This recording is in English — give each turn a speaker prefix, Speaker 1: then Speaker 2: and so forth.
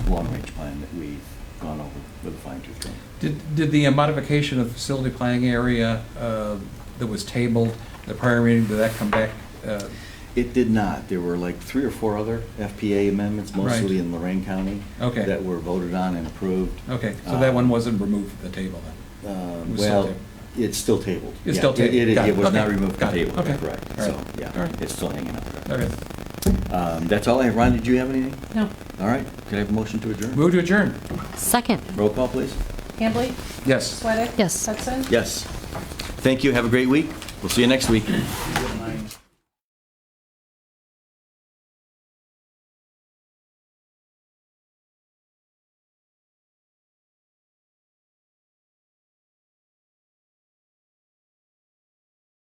Speaker 1: long-range plan that we've gone over with a fine-tooth comb.
Speaker 2: Did, did the uh, modification of facility planning area uh, that was tabled, the prior meeting, did that come back? uh,
Speaker 1: It did not. There were like three or four other FPA amendments, mostly
Speaker 2: Right.
Speaker 1: in Lorraine County.
Speaker 2: Okay.
Speaker 1: That were voted on and approved.
Speaker 2: Okay, so that one wasn't removed from the table then?
Speaker 1: Uh,
Speaker 2: was still
Speaker 1: Well,
Speaker 2: tabled.
Speaker 1: it's still tabled.
Speaker 2: It's
Speaker 1: Yeah,
Speaker 2: still
Speaker 1: it-
Speaker 2: tabled.
Speaker 1: It,
Speaker 2: Got
Speaker 1: it
Speaker 2: it.
Speaker 1: was
Speaker 2: Okay.
Speaker 1: not removed from
Speaker 2: Got it.
Speaker 1: table,
Speaker 2: Okay.
Speaker 1: correct.
Speaker 2: All
Speaker 1: So,
Speaker 2: right. All
Speaker 1: yeah,
Speaker 2: right.
Speaker 1: it's still hanging out there.
Speaker 2: Okay,
Speaker 1: Um, That's all I have. Ron, did you have anything?
Speaker 3: No.
Speaker 1: All right, could I have a motion to adjourn?
Speaker 2: move to adjourn.
Speaker 4: Second.
Speaker 1: Roll call, please.
Speaker 3: Hambley?
Speaker 2: Yes.
Speaker 3: Sweattick?
Speaker 4: Yes.
Speaker 3: Hudson?
Speaker 1: Yes. Thank you, have a great week. We'll see you next week.